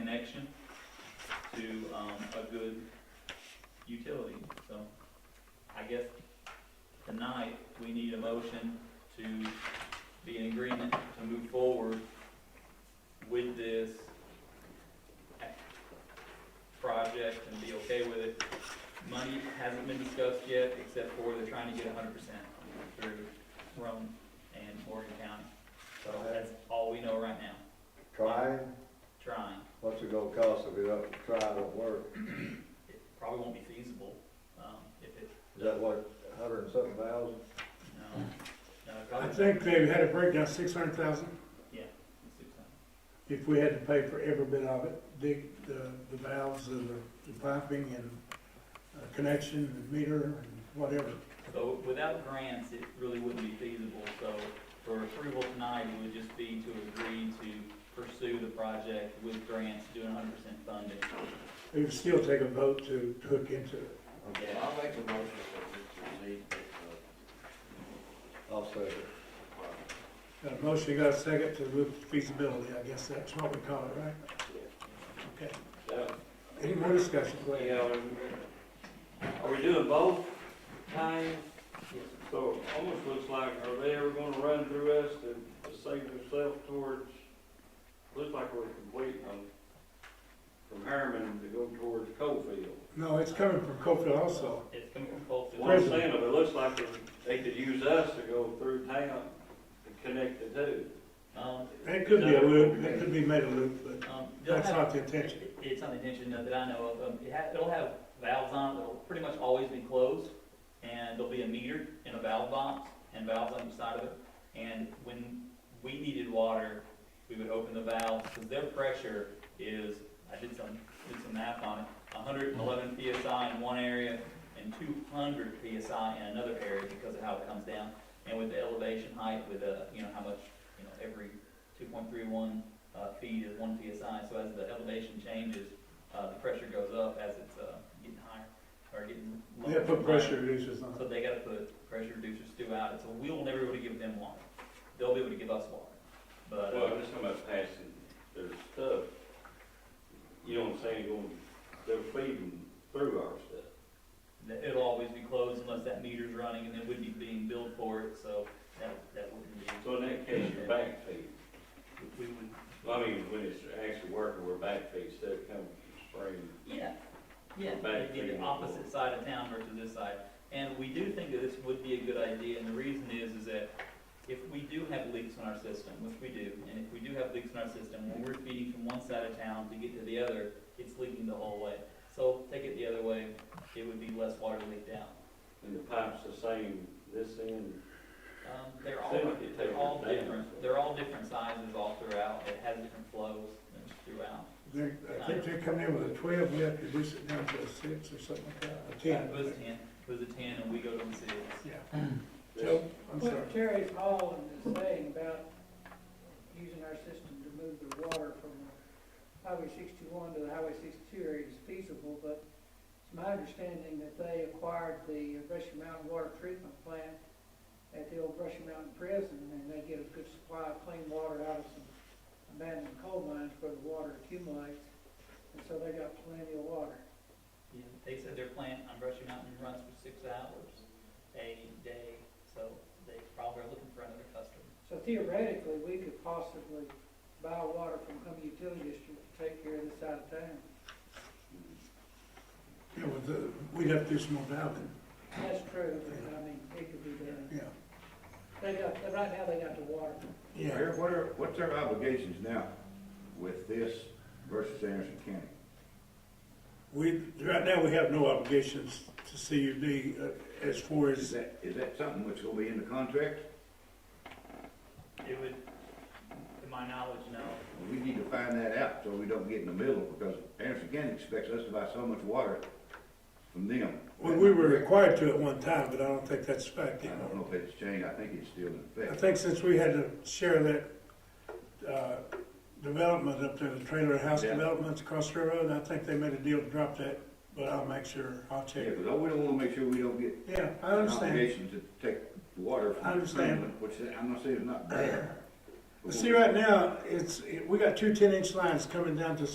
connection to, um, a good utility. So I guess tonight, we need a motion to be in agreement to move forward with this project and be okay with it. Money hasn't been discussed yet, except for they're trying to get hundred percent through Rome and Morgan County. So that's all we know right now, Trying, trying. what's it gonna cost if it don't, try don't work? It probably won't be feasible, um, if it, Is that what, a hundred and something thousand? no, no, it I probably. think they had a breakdown, six hundred thousand, Yeah. it's six hundred. if we had to pay for every bit of it, dig the, the valves and the, the piping and uh, connection and meter and whatever. So without grants, it really wouldn't be feasible, so for approval tonight, it would just be to agree to pursue the project with grants, doing hundred percent funding. They would still take a vote to, to hook into it. Okay, I'll make a motion that we proceed with uh, I'll say it. the project. Got a Uh, motion, got a second to look at feasibility, I guess that's what we call it, right? Okay, any more discussion, go ahead. Yeah, are we doing both times? So it almost looks like, are they ever gonna run through us to to save themselves towards, looks like we're completing them from Harriman to go towards Coalfield. No, it's coming from Cofield also. It's coming from Coalfield. One cent of it looks like they could use us to go through town to connect the two. Um, It could be a loop, it could be made a loop, but um, they'll that's have- not the intention. It- It's not the intention uh, that I know of, um, it ha it'll have valves on it, that'll pretty much always be closed, and there'll be a meter and a valve box, and valves on each side of it, and when we needed water, we would open the valves, because their pressure is, I did some, did some math on it, hundred and eleven PSI in one area, and two hundred PSI in another area because of how it comes down, and with the elevation height, with, uh, you know, how much, you know, every two point three one uh, feet is one PSI, so as the elevation changes, uh, the pressure goes up as it's, uh, getting higher, or getting They lower. have put pressure reducers on it. So they gotta put pressure reducers throughout it, so we will never be able to give them water, they'll be able to give us water, but, Well, uh, I'm just talking about passing their stuff. You know what I'm saying, going, they're feeding through our stuff. th- it'll always be closed unless that meter's running, and then we'd be being billed for it, so that, that wouldn't be, So in that case, you're back feed. we would, Well, I mean, when it's actually working, we're back feed instead of coming from spring. yeah, yeah, Back it'd be to the you. opposite side of town versus this side. And we do think that this would be a good idea, and the reason is, is that if we do have leaks in our system, which we do, and if we do have leaks in our system, when we're feeding from one side of town to get to the other, it's leaking the whole way. So take it the other way, it would be less water leaked out. And the pipe's the same this end. Um, they're all, They might be they're all taking it down. different, they're all different sizes all throughout, it has different flows throughout. They're, I think they're coming in with a twelve, we have to reduce it down to a six or something like that, a ten. It was Uh, ten, it was a ten, and we go to the six. Yeah. This- Joe, I'm sorry. What Terry Holland is saying about using our system to move the water from Highway sixty-one to the Highway sixty-two area is feasible, but it's my understanding that they acquired the Brushy Mountain Water Treatment Plant at the old Brushy Mountain Prison, and they get a good supply of clean water out of some abandoned coal mines where the water accumulates, and so they got plenty of water. Yeah, They said their plant on Brushy Mountain runs for six hours a day, so they probably are looking for another customer. So theoretically, we could possibly buy water from Humboldt Utility District to take care of this out of town. Yeah, with the, we'd have to do some more valving, That's true, but I mean, it could be done. yeah. They got, right now they got the water. Yeah, Where- What are, what's our obligations now with this versus Anderson County? we, right now, we have no obligations to CUD uh, as far Is as, that, is that something which will be in the contract? It would, to my knowledge, no. We need to find that out so we don't get in the middle, because Anderson County expects us to buy so much water from them. well, we were required to at one time, but I don't think that's a fact I don't anymore. know if it's changed, I think it's still in I effect. think since we had to share that, uh, development up there, the trailer house Yeah. developments across the road, I think they made a deal to drop that, but I'll make sure, I'll Yeah, check. because we don't wanna make sure we don't get Yeah, I an understand. obligation to take water I from the understand. Kremlin, which I'm not saying is not bad. Well, See, right now, it's, it- we got two ten-inch lines coming down to